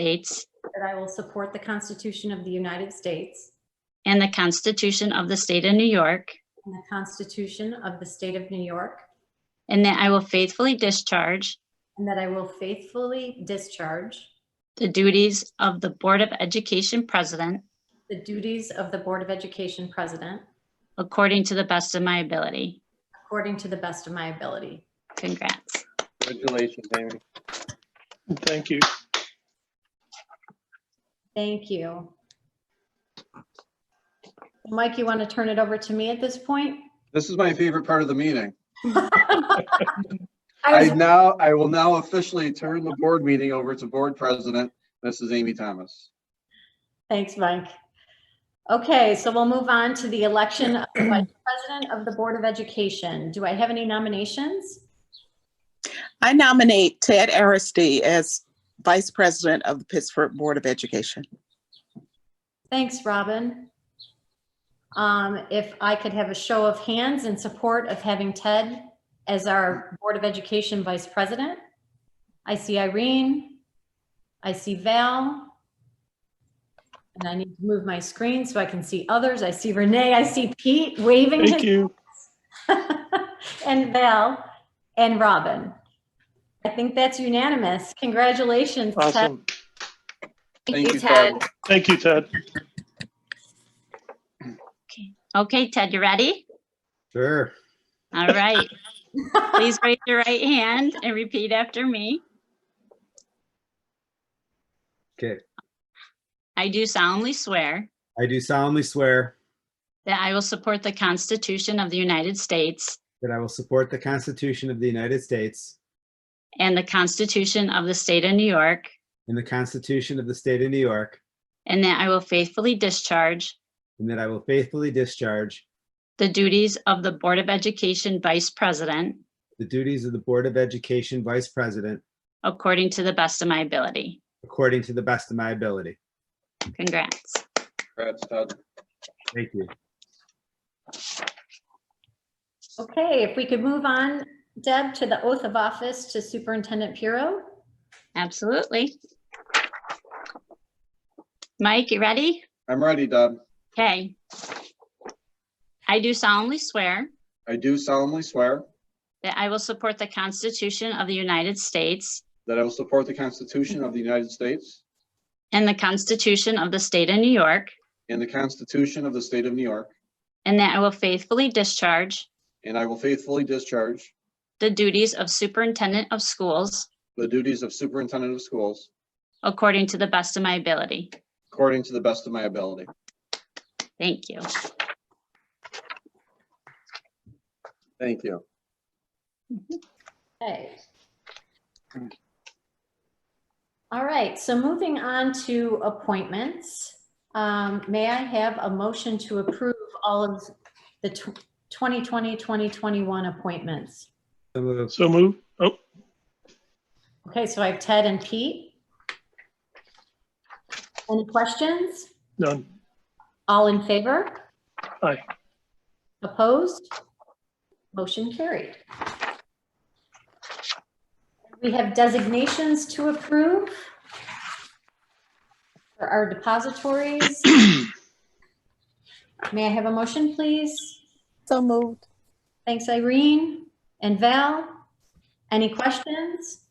States that I will support the Constitution of the United States and the Constitution of the State of New York, and the Constitution of the State of New York, and that I will faithfully discharge and that I will faithfully discharge the duties of the Board of Education President the duties of the Board of Education President according to the best of my ability. according to the best of my ability. Congrats. Congratulations, Amy. Thank you. Thank you. Mike, you want to turn it over to me at this point? This is my favorite part of the meeting. I I was- now, I will now officially turn the board meeting over to Board President, Mrs. Amy Thomas. Thanks, Mike. Okay, so we'll move on to the election of the Vice President of the Board of Education. Do I have any nominations? I nominate Ted Aristi as Vice President of the Pittsburgh Board of Education. Thanks, Robin. Um, If I could have a show of hands in support of having Ted as our Board of Education Vice President. I see Irene. I see Val. And I need to move my screen so I can see others. I see Renee. I see Pete waving. his- Thank you. And Val and Robin. I think that's unanimous. Congratulations, Ted. Awesome. Thank you, Ted. Thank you, Ted. Okay, Ted, you ready? Sure. All right. Please raise your right hand and repeat after me. Okay. I do solemnly swear I do solemnly swear that I will support the Constitution of the United States that I will support the Constitution of the United States and the Constitution of the State of New York, and the Constitution of the State of New York, and that I will faithfully discharge and that I will faithfully discharge the duties of the Board of Education Vice President the duties of the Board of Education Vice President according to the best of my ability. according to the best of my ability. Congrats. Congrats, Ted. Thank you. Okay, if we could move on, Deb, to the oath of office to Superintendent Puro. Absolutely. Mike, you ready? I'm ready, Deb. Okay. I do solemnly swear I do solemnly swear that I will support the Constitution of the United States that I will support the Constitution of the United States and the Constitution of the State of New York, and the Constitution of the State of New York, and that I will faithfully discharge and I will faithfully discharge the duties of Superintendent of Schools the duties of Superintendent of Schools according to the best of my ability. according to the best of my ability. Thank you. Thank you. Okay. All right, so moving on to appointments. Um, May I have a motion to approve all of the tw- 2020, 2021 appointments? So moved. So move. Oh, Okay, so I have Ted and Pete. Any questions? none. All in favor? Aye. Opposed? Motion carried. We have designations to approve for our depositories. May I have a motion, please? So moved. Thanks, Irene and Val. Any questions?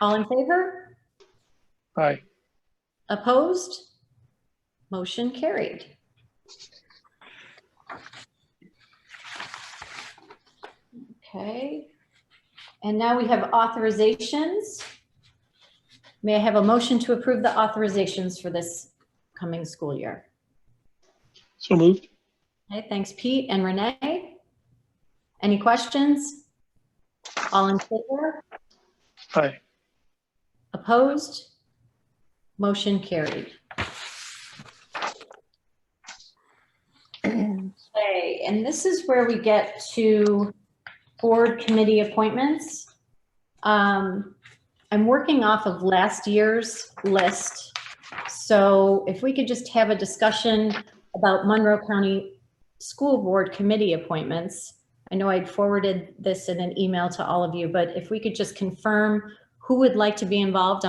All in favor? Aye. Opposed? Motion carried. Okay. And now we have authorizations. May I have a motion to approve the authorizations for this coming school year? So moved. Okay, thanks Pete and Renee. Any questions? All in favor? Aye. Opposed? Motion carried. Okay, and this is where we get to board committee appointments. Um, I'm working off of last year's list. So if we could just have a discussion about Monroe County School Board Committee appointments. I know I'd forwarded this in an email to all of you, but if we could just confirm who would like to be involved on